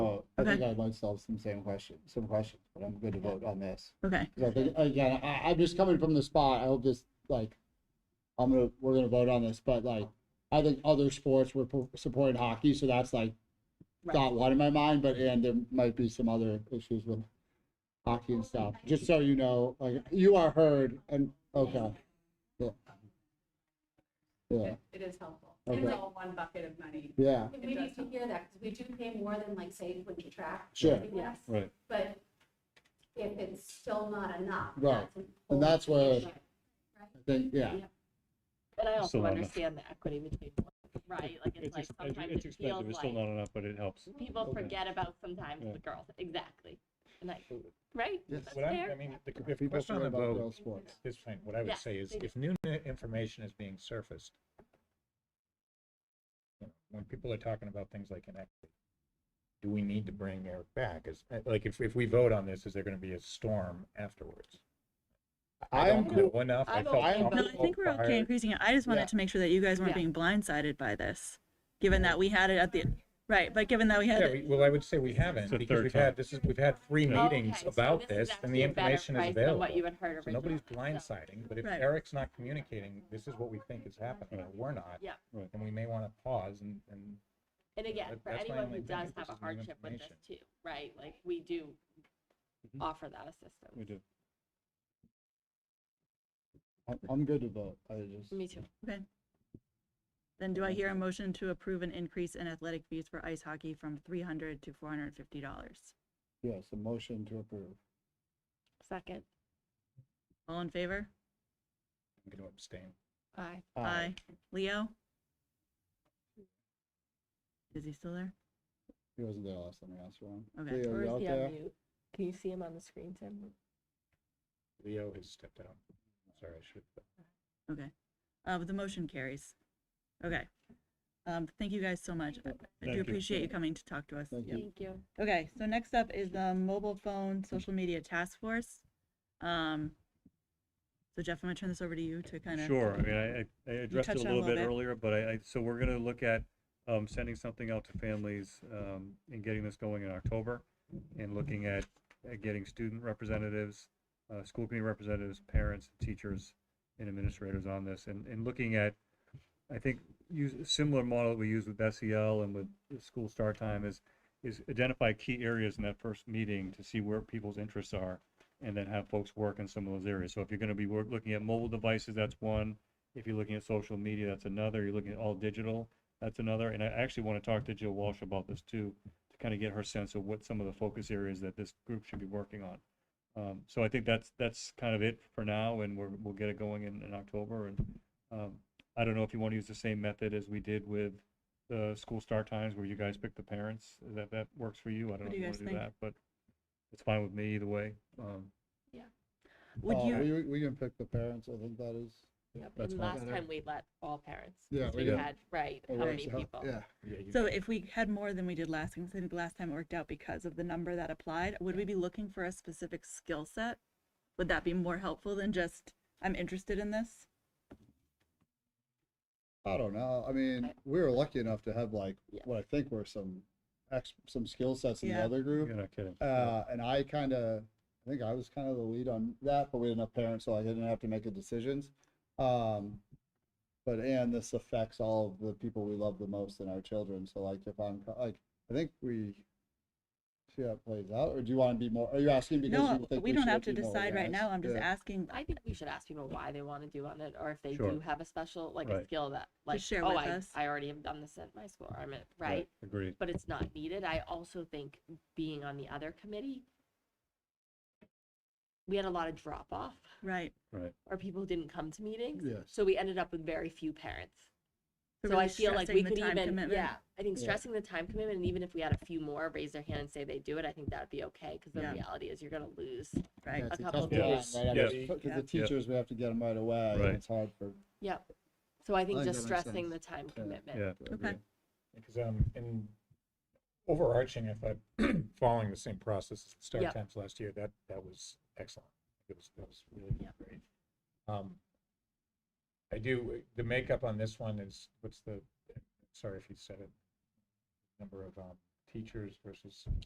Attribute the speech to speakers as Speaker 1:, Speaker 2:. Speaker 1: Oh, I think
Speaker 2: Okay.
Speaker 1: I might solve some same question, some questions, but I'm good to vote on this.
Speaker 2: Okay,
Speaker 1: 'Cause I think, again, I, I'm just coming from the spot, I'll just, like, I'm gonna, we're gonna vote on this, but like, I think other sports were po- supporting hockey, so that's like,
Speaker 2: Right.
Speaker 1: thought one in my mind, but, and there might be some other issues with hockey and stuff, just so you know, like, you are heard, and, okay. Yeah. Yeah,
Speaker 3: It it is helpful.
Speaker 1: Okay.
Speaker 3: It's all one bucket of money.
Speaker 1: yeah,
Speaker 4: And we need to hear that, because we do pay more than like, say, winter track.
Speaker 1: Sure.
Speaker 4: Yes,
Speaker 5: Right.
Speaker 4: but if it's still not enough.
Speaker 1: Right.
Speaker 4: that's a
Speaker 1: And that's
Speaker 4: whole
Speaker 1: where-
Speaker 4: different-
Speaker 1: I think, yeah,
Speaker 6: But I
Speaker 5: Still
Speaker 6: also
Speaker 5: not enough.
Speaker 6: understand the equity between, boys, right, like, it's
Speaker 5: It's
Speaker 6: like
Speaker 5: ex- it's-
Speaker 6: sometimes
Speaker 5: it's
Speaker 6: it
Speaker 5: expensive,
Speaker 6: feels
Speaker 5: it's still
Speaker 6: like,
Speaker 5: not enough, but it helps.
Speaker 6: people
Speaker 5: Okay.
Speaker 6: forget about sometimes
Speaker 5: Yeah.
Speaker 6: the girls, exactly. And like, right,
Speaker 1: Yes.
Speaker 6: that's
Speaker 7: What I, I
Speaker 6: fair,
Speaker 7: mean, the
Speaker 1: If
Speaker 7: the
Speaker 1: people
Speaker 7: question on
Speaker 1: forget
Speaker 7: the
Speaker 1: about
Speaker 7: vote,
Speaker 1: girls' sports.
Speaker 7: this point, what I
Speaker 6: Yeah,
Speaker 7: would say is
Speaker 6: they do.
Speaker 7: if new ni- information is being surfaced, you know, when people are talking about things like inequity, do we need to bring Eric back? Is, uh, like, if, if we vote on this, is there gonna be a storm afterwards? I
Speaker 1: I'm
Speaker 7: don't
Speaker 1: cool,
Speaker 7: know enough. I
Speaker 6: I'm
Speaker 7: felt
Speaker 1: okay, but-
Speaker 2: no, I
Speaker 7: comfortable
Speaker 2: think we're okay
Speaker 7: prior-
Speaker 2: increasing it. I just
Speaker 1: Yeah.
Speaker 2: wanted to make sure that you guys weren't
Speaker 6: Yeah.
Speaker 2: being blindsided by this, given that we had it at the, right, but given that we had
Speaker 7: Yeah,
Speaker 2: it
Speaker 7: we- well, I would say we haven't
Speaker 5: the
Speaker 7: because
Speaker 5: third
Speaker 7: we've
Speaker 5: time.
Speaker 7: had, this is, we've had three meetings
Speaker 6: Okay, so
Speaker 7: about
Speaker 6: this is
Speaker 7: this and the
Speaker 6: actually a better
Speaker 7: information is
Speaker 6: price than
Speaker 7: available.
Speaker 6: What you had heard
Speaker 7: So
Speaker 6: originally.
Speaker 7: nobody's
Speaker 6: so-
Speaker 7: blindsiding, but if
Speaker 2: Right.
Speaker 7: Eric's not communicating, this is what we think is happening, or we're not.
Speaker 6: Yeah.
Speaker 5: Right.
Speaker 7: And we may want to pause and, and
Speaker 6: And again,
Speaker 7: that-
Speaker 6: for
Speaker 7: that's my
Speaker 6: anyone
Speaker 7: only
Speaker 6: who
Speaker 7: thing,
Speaker 6: does
Speaker 7: if
Speaker 6: have
Speaker 7: this
Speaker 6: a
Speaker 7: is new
Speaker 6: hardship with this
Speaker 7: information.
Speaker 6: too, right, like, we do
Speaker 5: Mhm.
Speaker 6: offer that assistance.
Speaker 5: We do.
Speaker 1: I'm, I'm good to vote, I just.
Speaker 6: Me too.
Speaker 2: Then do I hear a motion to approve an increase in athletic fees for ice hockey from three hundred to four hundred and fifty dollars?
Speaker 1: Yes, a motion to approve.
Speaker 6: Second,
Speaker 2: All in favor?
Speaker 7: I'm going to abstain.
Speaker 6: aye.
Speaker 1: Aye.
Speaker 2: Leo? Is he still there?
Speaker 1: He wasn't there last time I asked for him.
Speaker 2: Okay.
Speaker 1: Leo, you out there?
Speaker 6: Can you see him on the screen, Tim?
Speaker 7: Leo has stepped out. Sorry, I should.
Speaker 2: Okay. Uh, but the motion carries. Okay. Um, thank you guys so much. I- I
Speaker 5: Thank
Speaker 2: do
Speaker 5: you.
Speaker 2: appreciate you coming to talk to us.
Speaker 1: Thank
Speaker 2: Yep.
Speaker 6: Thank you.
Speaker 2: Okay, so next up is the mobile phone social media task force. Um, so Jeff, I'm gonna turn this over to you to kind of.
Speaker 5: Sure, I mean, I, I- I addressed it a
Speaker 2: touched on it a
Speaker 5: little bit
Speaker 2: little bit.
Speaker 5: earlier, but I, I, so we're gonna look at, um, sending something out to families, um, and getting this going in October. And looking at, at getting student representatives, uh, school committee representatives, parents, teachers, and administrators on this, and, and looking at, I think, use a similar model we use with SEL and with the school start time is, is identify key areas in that first meeting to see where people's interests are and then have folks work in some of those areas. So if you're going to be work, looking at mobile devices, that's one. If you're looking at social media, that's another. You're looking at all digital, that's another. And I actually want to talk to Jill Walsh about this too, to kind of get her sense of what some of the focus areas that this group should be working on. Um, so I think that's that's kind of it for now, and we're, we'll get it going in, in October. And um, I don't know if you want to use the same method as we did with the school start times, where you guys pick the parents. Is That that works for you. I don't
Speaker 2: What
Speaker 5: know
Speaker 2: do
Speaker 5: if
Speaker 2: you
Speaker 5: you want
Speaker 2: guys
Speaker 5: to do
Speaker 2: think?
Speaker 5: that, but it's fine with me either way. Um,
Speaker 2: Would
Speaker 5: oh,
Speaker 1: Uh,
Speaker 2: you,
Speaker 1: We, we can pick the parents, I think that is.
Speaker 6: And last
Speaker 1: Yeah.
Speaker 6: time we let all parents,
Speaker 1: Yeah,
Speaker 6: because
Speaker 1: we
Speaker 6: we
Speaker 1: did.
Speaker 6: had, right,
Speaker 1: Oh,
Speaker 6: how
Speaker 1: right,
Speaker 6: many
Speaker 1: so-
Speaker 6: people?
Speaker 1: Yeah,
Speaker 2: so if we had more than we did last, time, 'cause I think last time it worked out because of the number that applied, would we be looking for a specific skill set? Would that be more helpful than just, I'm interested in this?
Speaker 1: I don't know, I mean, we were lucky enough to have like,
Speaker 6: Yeah.
Speaker 1: what I think were some ex, some skill sets in the
Speaker 2: Yeah.
Speaker 1: other
Speaker 5: you're
Speaker 1: group.
Speaker 5: not kidding.
Speaker 1: Uh, and I kind of, I think I was kind of the lead on that, but we had enough parents, so I didn't have to make the decisions. Um, but and this affects all of the people we love the most in our children. So like, if I'm co- like, I think we see how it plays out, or do you want to be more? Are you asking because
Speaker 2: No,
Speaker 1: you think
Speaker 2: we don't
Speaker 1: should
Speaker 2: have to
Speaker 1: be more
Speaker 2: decide right
Speaker 1: organized?
Speaker 2: now. I'm just
Speaker 1: Yeah.
Speaker 2: asking,
Speaker 6: I think we should ask people why they want to do on it, or if they
Speaker 5: Sure.
Speaker 6: do have a special, like a
Speaker 5: Right.
Speaker 6: skill that, like,
Speaker 2: share
Speaker 6: oh,
Speaker 2: with
Speaker 6: I,
Speaker 2: us.
Speaker 6: I already have done this at my school, or I'm at, right,
Speaker 5: Agreed.
Speaker 6: but it's not needed. I also think being on the other committee, we had a lot of drop off,
Speaker 2: right.
Speaker 5: Right.
Speaker 6: or people who didn't come to meetings.
Speaker 1: Yes.
Speaker 6: So we ended up with very few parents. So
Speaker 2: really
Speaker 6: I feel like
Speaker 2: stressing
Speaker 6: we
Speaker 2: the
Speaker 6: could
Speaker 2: time
Speaker 6: even,
Speaker 2: commitment.
Speaker 6: yeah, I think
Speaker 1: Yeah.
Speaker 6: stressing the time commitment, and even if we had a few more raise their hand and say they do it, I think that would be okay. Because the
Speaker 2: Yeah.
Speaker 6: reality is you're going to lose.
Speaker 2: Right,
Speaker 1: Yeah, it's
Speaker 6: a
Speaker 1: tough
Speaker 6: couple
Speaker 1: to do it
Speaker 6: days.
Speaker 1: right after-
Speaker 5: Yeah.
Speaker 1: Because
Speaker 2: Yeah.
Speaker 1: the teachers, we have to get them right away. and
Speaker 5: Right.
Speaker 1: It's hard for.
Speaker 6: Yep. So I think
Speaker 1: think
Speaker 6: just
Speaker 1: that makes
Speaker 6: stressing the
Speaker 1: sense.
Speaker 6: time
Speaker 1: Yeah.
Speaker 6: commitment.
Speaker 5: Yeah.
Speaker 1: for
Speaker 2: Okay.
Speaker 1: everyone.
Speaker 7: Because um, in overarching, if I'm following the same process as the start
Speaker 6: Yep.
Speaker 7: times last year, that that was excellent. It was that was really
Speaker 6: Yep.
Speaker 7: great. Um, I do the makeup on this one is what's the sorry if you said it number of um, teachers versus